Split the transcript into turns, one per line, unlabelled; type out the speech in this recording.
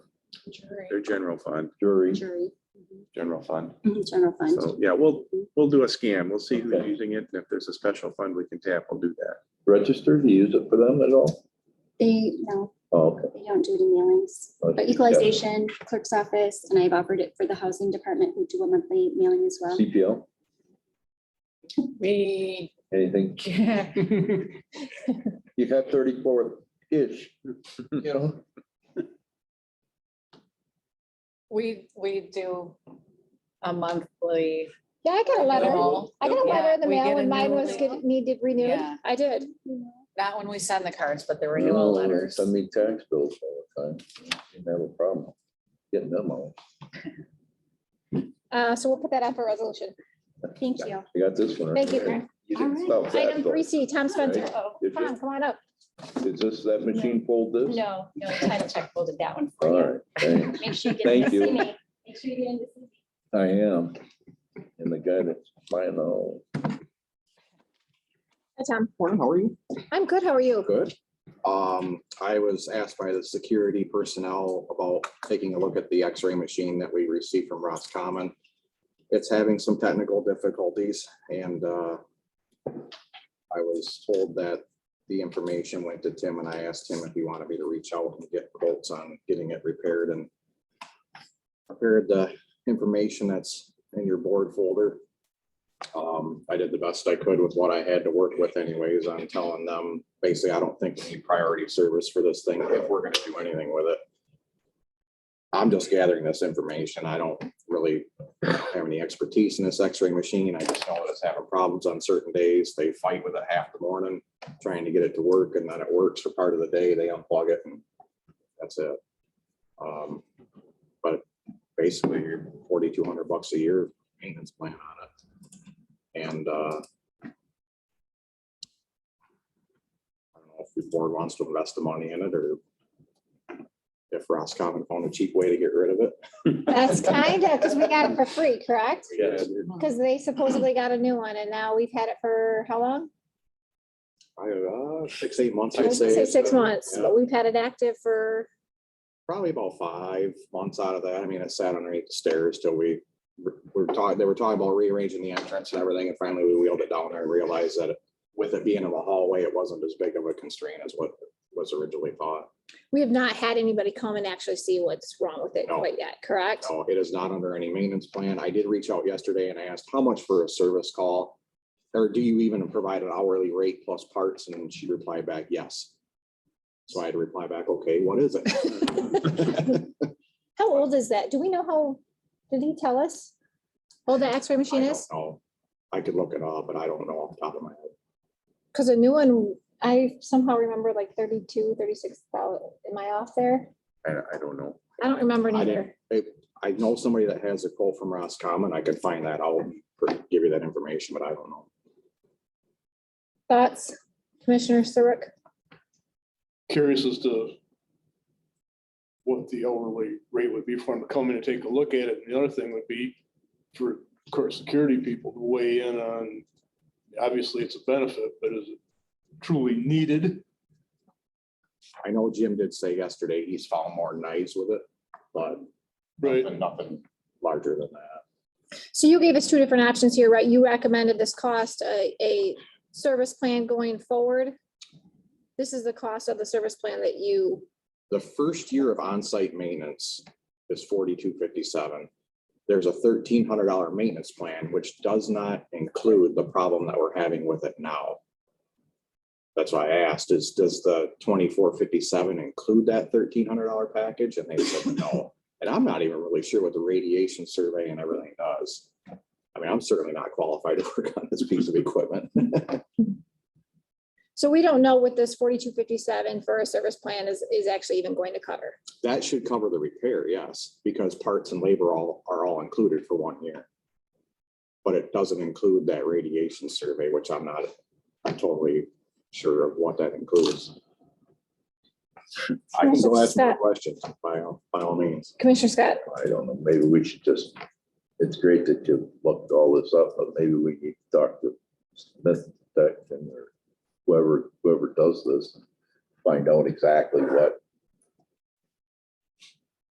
their general fund.
Jury,
Jury,
general fund.
mhm, general fund.
So, yeah, we'll,
Mhm.
we'll do a scan. We'll see who's
Okay.
using it. And if there's a special fund we can tap, we'll do that.
Registered, you use it for them at all?
They, no,
Oh, Okay.
they don't do it in mailings.
Oh,
But
yeah.
equalization, clerk's office, and I've offered it for the housing department, who do a monthly mailing as well.
CPL,
We
anything?
can't.
You have thirty-four-ish, you know?
We, we do a monthly,
Yeah, I got a letter.
Mail.
I got a letter in the
Yeah, we
mail
get
when
a
mine
new
was
mail.
get- needed renewed.
Yeah.
I did.
not when we send the cards, but the renewal
Oh, they
letters.
Send me tax bills all the time. Didn't have a problem getting them all.
Uh, so we'll put that on for resolution.
Thank you.
I got this one.
Thank you, Karen.
right. You didn't
All
stop that,
Item
though.
three C, Tom Spencer. Oh,
Did
Tom,
you?
come on up.
Is this that machine fold this?
No, no, title check folded that one
All right, thanks.
Make sure
get in to Thank see you.
me. Make sure you get in to see me.
I am. And the guy that's buying all,
Hi, Tom.
Morning, how are you?
I'm good. How are you?
good,
Um, I was asked by the security personnel about taking a look at the x-ray machine that we received from Roscommon. It's having some technical difficulties and, uh, I was told that the information went to Tim and I asked him if he wanted me to reach out and get quotes on getting it repaired and prepared the information that's in your board folder. Um, I did the best I could with what I had to work with anyways. I'm telling them, basically, I don't think we need priority service for this thing if we're gonna do anything with it. I'm just gathering this information. I don't really have any expertise in this x-ray machine. I just know it's having problems on certain days. They fight with it half the morning, trying to get it to work, and then it works for part of the day. They unplug it and that's it. Um, But basically, you're forty-two hundred bucks a year maintenance plan on it. And uh, I don't know if the board wants to invest the money in it or if Roscommon found a cheap way to get rid of it.
That's kind of, because we got it for free, correct?
Yes.
Mm-hmm.
Because they supposedly got a new one and now we've had it for how long?
I, uh, Six, eight months,
I
I'd
was gonna
say.
say six months,
Yeah.
but we've had it active for,
Probably about five months out of that. I mean, it sat underneath the stairs till we were- were talking, they were talking about rearranging the entrance and everything. And finally, we wheeled it down there and realized that with it being in the hallway, it wasn't as big of a constraint as what was originally thought.
we have not had anybody come and actually see what's wrong with it
No.
quite yet, correct?
No, it is not under any maintenance plan. I did reach out yesterday and I asked how much for a service call? Or do you even provide an hourly rate plus parts? And she replied back, yes. So I had to reply back, okay, what is it?
How old is that? Do we know how, did he tell us? How old the x-ray
I
machine
don't
is?
know. I could look it up, but I don't know off the top of my head.
Because a new one, I somehow remember like 32, 36 thousand. Am I off there?
I, I don't know.
I don't remember
I
neither.
I know somebody that has a quote from Roscommon. I could find that out, and give you that information, but I don't know.
Thoughts, Commissioner Serbrook?
curious as to what the hourly rate would be for them to come in and take a look at it. And the other thing would be for court security people to weigh in on, obviously it's a benefit, but is it truly needed?
I know Jim did say yesterday he's found more knives with it, but
Right.
nothing larger than that.
So you gave us two different options here, right? You recommended this cost, a, a service plan going forward. This is the cost of the service plan that you,
The first year of on-site maintenance is forty-two fifty-seven. There's a thirteen hundred dollar maintenance plan, which does not include the problem that we're having with it now. That's why I asked is, does the twenty-four fifty-seven include that thirteen hundred dollar package? And they said no. And I'm not even really sure what the radiation survey and everything does. I mean, I'm certainly not qualified to work on this piece of equipment.
so we don't know what this forty-two fifty-seven for a service plan is, is actually even going to cover.
That should cover the repair, yes, because parts and labor all are all included for one year. But it doesn't include that radiation survey, which I'm not totally sure of what that includes. I can go ask more questions by all, by all means.
Commissioner Scott?
I don't know, maybe we should just, it's great that you looked all this up, but maybe we need to talk to Smith Tech and or whoever, whoever does this, find out exactly what